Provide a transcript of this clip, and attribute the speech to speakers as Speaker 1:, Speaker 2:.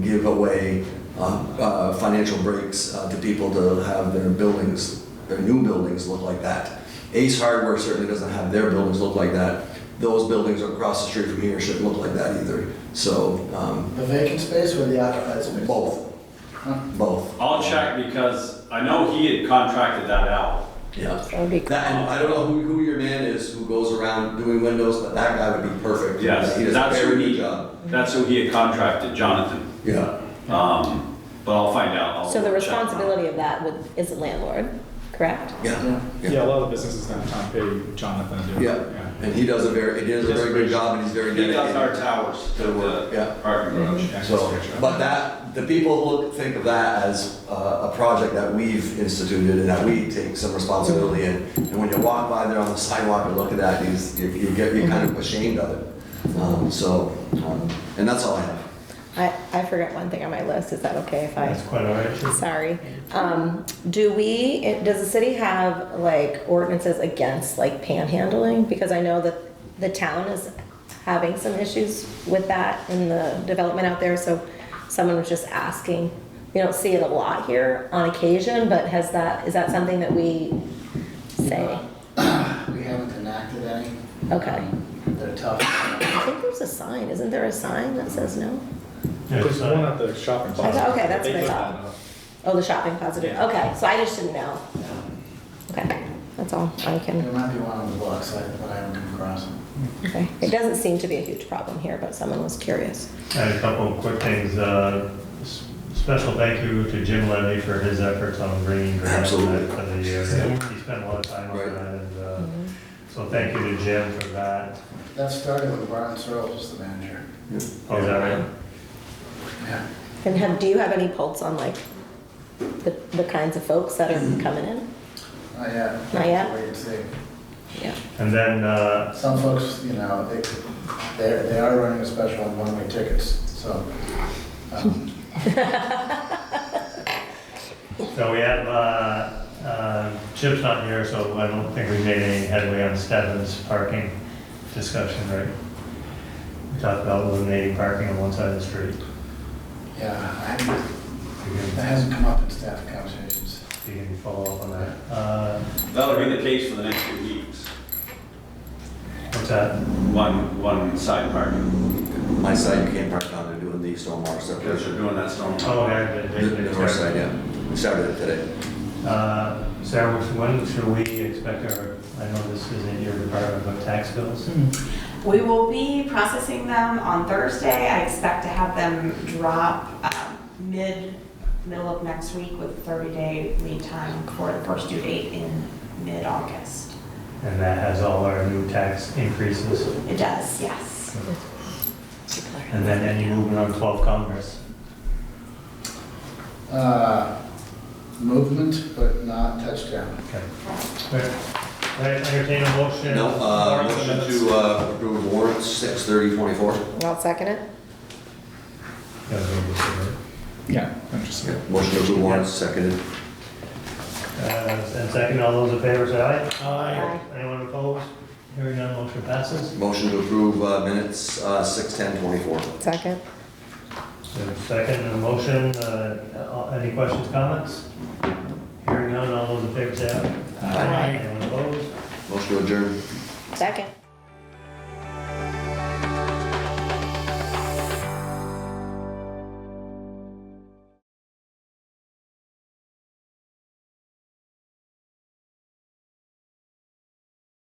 Speaker 1: give away uh, uh, financial breaks uh, to people to have their buildings, their new buildings look like that. Ace Hardware certainly doesn't have their buildings look like that. Those buildings across the street from here shouldn't look like that either. So, um,
Speaker 2: The vacant space or the occupied space?
Speaker 1: both, both,
Speaker 3: I'll check because I know he had contracted that out.
Speaker 1: yeah.
Speaker 4: That would be cool.
Speaker 1: That, and I don't know who, who your man is who goes around doing windows, but that guy would be perfect.
Speaker 3: Yes,
Speaker 1: He does a
Speaker 3: that's who
Speaker 1: very good
Speaker 3: he,
Speaker 1: job.
Speaker 3: that's who he had contracted, Jonathan.
Speaker 1: Yeah,
Speaker 3: Um, but I'll find out. I'll
Speaker 4: So the
Speaker 3: check.
Speaker 4: responsibility of that would, is the landlord, correct?
Speaker 1: yeah.
Speaker 2: Yeah.
Speaker 5: Yeah, a lot of the businesses downtown pay Jonathan to do it.
Speaker 1: Yeah, and he does a very, he does a very good job, and he's very
Speaker 3: He
Speaker 1: dedicated.
Speaker 3: does our towers to
Speaker 1: Yeah.
Speaker 3: the parking garage.
Speaker 5: Yeah,
Speaker 1: So,
Speaker 5: that's a good job.
Speaker 1: but that, the people who look, think of that as uh, a project that we've instituted and that we take some responsibility in. And when you walk by there on the sidewalk and look at that, you, s- you you get, you're kind of ashamed of it. Um, So, um, and that's all I have.
Speaker 4: I, I forgot one thing on my list, is that okay if I?
Speaker 6: That's quite all right.
Speaker 4: Sorry. Um, do we, it- does the city have like ordinances against like panhandling? Because I know that the town is having some issues with that in the development out there, so someone was just asking. We don't see it a lot here on occasion, but has that, is that something that we say?
Speaker 2: We haven't enacted any.
Speaker 4: Okay.
Speaker 2: They're tough.
Speaker 4: I think there's a sign, isn't there a sign that says no?
Speaker 6: Yeah,
Speaker 5: There's
Speaker 6: so-
Speaker 5: one at the shopping
Speaker 4: thought-
Speaker 5: plaza.
Speaker 4: okay, that's
Speaker 5: They
Speaker 4: what I
Speaker 5: put
Speaker 4: thought.
Speaker 5: that up.
Speaker 4: Oh, the shopping plaza, did.
Speaker 5: Yeah.
Speaker 4: okay, so I just didn't know. Okay, that's all I can.
Speaker 2: There might be one on the blocks, I- but I haven't come across them.
Speaker 4: Okay. It doesn't seem to be a huge problem here, but someone was curious.
Speaker 6: I had a couple of quick things. Uh, s- Special thank you to Jim Levy for his efforts on bringing grants for
Speaker 1: Absolutely.
Speaker 6: the year. He spent a lot of time on
Speaker 1: Right.
Speaker 6: that, and uh, so thank you to Jim for that.
Speaker 2: That started with Brian Searles was the manager.
Speaker 6: Oh, is that right?
Speaker 2: Yeah.
Speaker 4: And have, do you have any pulse on like the, the kinds of folks that are coming in?
Speaker 2: Not yet.
Speaker 4: Not yet?
Speaker 2: Wait and see.
Speaker 4: Yeah.
Speaker 6: And then, uh,
Speaker 2: Some folks, you know, they, they're, they are running a special on one-way tickets, so. um,
Speaker 6: so we have, uh, uh, Chip's not here, so I don't think we made any headway on Stebbins parking discussion, right? We talked about eliminating parking on one side of the street.
Speaker 2: Yeah, I haven't-
Speaker 6: You can-
Speaker 2: that hasn't come up in staff conversations.
Speaker 6: You can follow up on that. Uh,
Speaker 4: Mm-hmm.
Speaker 3: That'll be the case for the next few weeks.
Speaker 6: What's that?
Speaker 3: One, one side parking,
Speaker 1: My side, you can't park on, they're doing the stormwater
Speaker 3: because
Speaker 1: separation.
Speaker 3: they're doing that storm.
Speaker 6: Oh, yeah.
Speaker 1: The the north side, yeah. We started it today.
Speaker 6: Uh, Sarah, which- when should we expect our, I know this isn't your department, but tax bills?
Speaker 7: We will be processing them on Thursday. I expect to have them drop um, mid, middle of next week with 30-day lead time for the first due date in mid-August.
Speaker 6: And that has all our new tax increases.
Speaker 7: It does, yes.
Speaker 6: And then any movement on 12 Congress.
Speaker 2: Uh, Movement, but not touchdown.
Speaker 6: Okay. Right, Right, entertain a motion.
Speaker 1: No, uh,
Speaker 6: Warrants and
Speaker 1: motion
Speaker 6: minutes.
Speaker 1: to uh, approve warrants, six thirty twenty-four.
Speaker 4: I'll second it.
Speaker 6: Yeah, we'll do this,
Speaker 5: Yeah, interesting.
Speaker 1: Motion to approve warrants, seconded.
Speaker 6: right. Uh, And second, all those in favor say aye.
Speaker 4: Aye.
Speaker 6: Anyone opposed? Hearing none, motion passes.
Speaker 1: Motion to approve uh, minutes, uh, six ten twenty-four.
Speaker 4: Second.
Speaker 6: So Second, and motion, uh, uh, any questions, comments? Hearing none, all those in favor say aye.
Speaker 1: Aye.
Speaker 6: Anyone opposed?
Speaker 1: Motion to adjourn.
Speaker 4: Second.